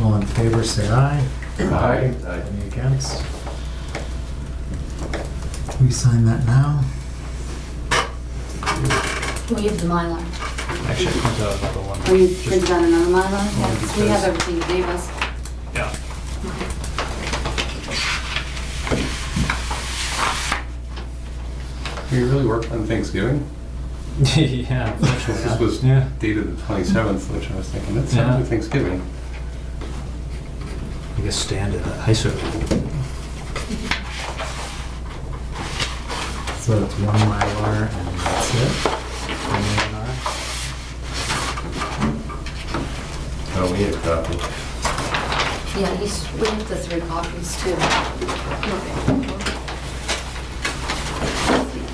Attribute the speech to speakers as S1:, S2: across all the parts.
S1: All in favor, say aye.
S2: Aye. Aye.
S1: Any against? We sign that now?
S3: Can we have the Mylar?
S4: Actually, I printed out another one.
S3: Or you
S4: Just-
S3: printed out another Mylar?
S4: Well,
S3: Yes, we have
S4: because-
S3: everything you gave us.
S4: Yeah.
S2: We really worked on Thanksgiving.
S4: Yeah, unfortunately.
S2: This was
S4: Yeah.
S2: dated the 27th, which I was thinking, that's
S4: Yeah.
S2: after Thanksgiving.
S4: I guess standard, ISO.
S1: So it's one Mylar and that's it? One Mylar?
S2: Oh, we need a copy.
S3: Yeah, he's, we have the three copies too. Okay.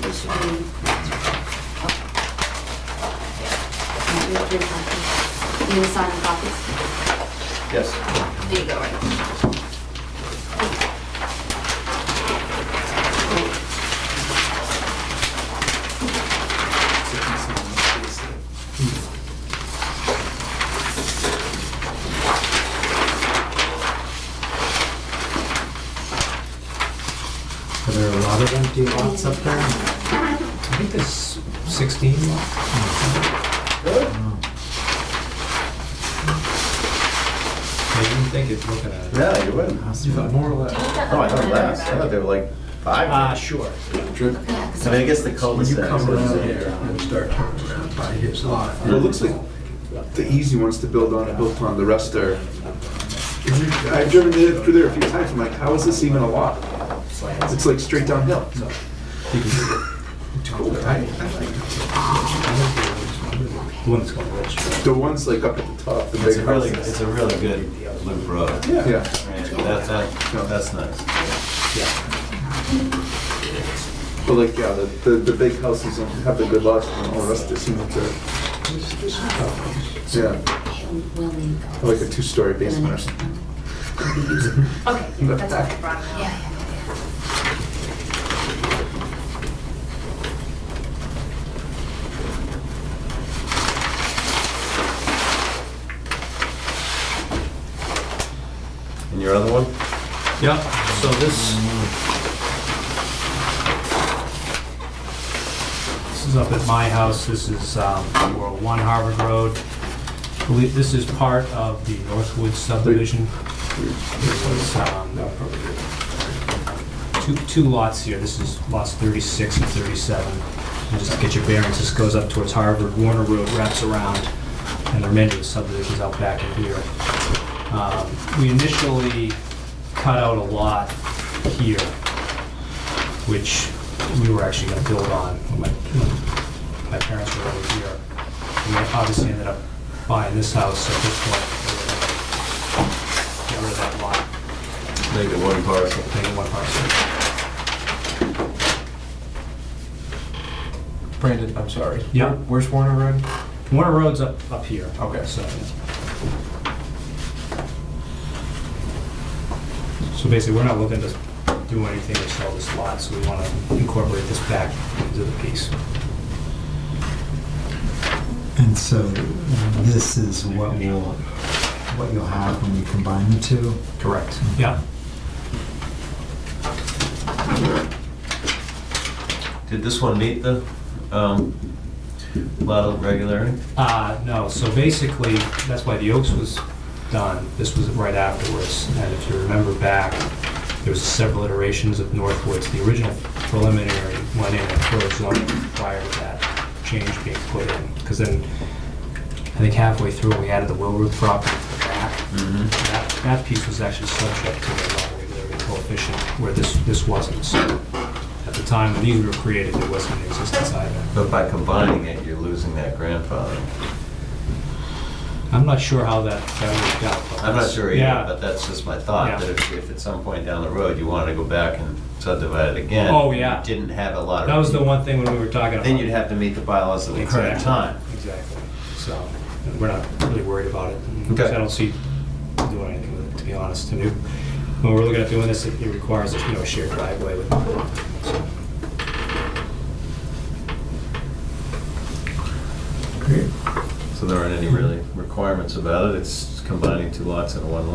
S3: We should be- Yeah, we have three copies. You need to sign the copies?
S2: Yes.
S3: There you go, right?
S1: Are there a lot of empty lots up there?
S4: I think there's 16
S1: Oh,
S4: I didn't think it's looking at it.
S5: Yeah, you wouldn't.
S1: that's
S4: You thought
S1: right.
S4: more or less.
S5: No, Oh, I thought less. I thought they were like
S4: Ah,
S5: five.
S4: sure.
S3: Yeah, 'cause
S5: I mean, I guess the cul-de-sac.
S6: Come around
S5: is-
S6: there and start turning around by his lot.
S7: Well, it looks like the easy ones to build on, are built on, the rest are, I've driven it through there a few times, I'm like, how is this even a lot? It's like straight downhill. It's cool, right?
S4: The one that's going to register.
S7: The ones like up at the top, the
S5: It's
S7: big
S5: a really,
S7: houses.
S5: it's a really good loop road. Yeah.
S7: Yeah,
S5: That, that, no, that's nice.
S7: but like, yeah, the, the, the big houses don't have the good lots, and all the rest, they seem like they're, yeah,
S3: We'll we'll need those.
S7: like a two-story basement or something.
S3: Okay, that's all I brought. Yeah, yeah.
S5: And your other one?
S4: Yeah, so this. This is up at my house, this is, um, World One Harvard Road. Believe- This is part of the Northwood subdivision. It was, um, two, two lots here, this is lots thirty-six and thirty-seven. And just to get your bearings, this goes up towards Harvard, Warner Road wraps around, and the remainder of the subdivision's out back in here. Um, We initially cut out a lot here, which we were actually gonna build on when my, when my parents were over here. And we obviously ended up buying this house at this point. Get rid of that lot,
S5: Make it one parcel.
S4: make it one parcel.
S6: Brandon, I'm sorry.
S4: Yeah.
S6: Where's Warner Road?
S4: Warner Road's up, up here.
S6: Okay.
S4: So. So basically, we're not looking to do anything to sell this lot, so we wanna incorporate this back into the piece.
S1: And so this is what will, what you'll have when you combine the two?
S4: Correct. Yeah.
S5: Did this one meet the, um, lot of regularity?
S4: Uh, no, so basically, that's why the Oaks was done, this was right afterwards, and if you remember back, there was several iterations of Northwoods, the original preliminary went in and closed zoning prior to that change being put in, because then, I think halfway through, we added the Willroot property to the back. That, that piece was actually subject to the lot regularity coefficient, where this, this wasn't, so, at the time when these were created, it wasn't in existence either.
S5: But by combining it, you're losing that grandfather.
S4: I'm not sure how that, that worked out. but
S5: I'm not
S4: that's-
S5: sure either,
S4: yeah.
S5: but that's just my thought,
S4: Yeah.
S5: that if, if at some point down the road you wanted to go back and subdivide it again.
S4: Oh, yeah.
S5: you Didn't have a lot of.
S4: That was the one thing when we were talking about.
S5: Then you'd have to meet the bylaws at the current
S4: Exactly.
S5: time.
S4: Exactly. So we're not really worried about it.
S5: Okay.
S4: I don't see doing anything with it, to be honest. And we- when we're looking at doing this, it it requires, you know, a shared driveway with. so.
S1: Great.
S5: So there aren't any really requirements about it, it's combining two lots into one lot.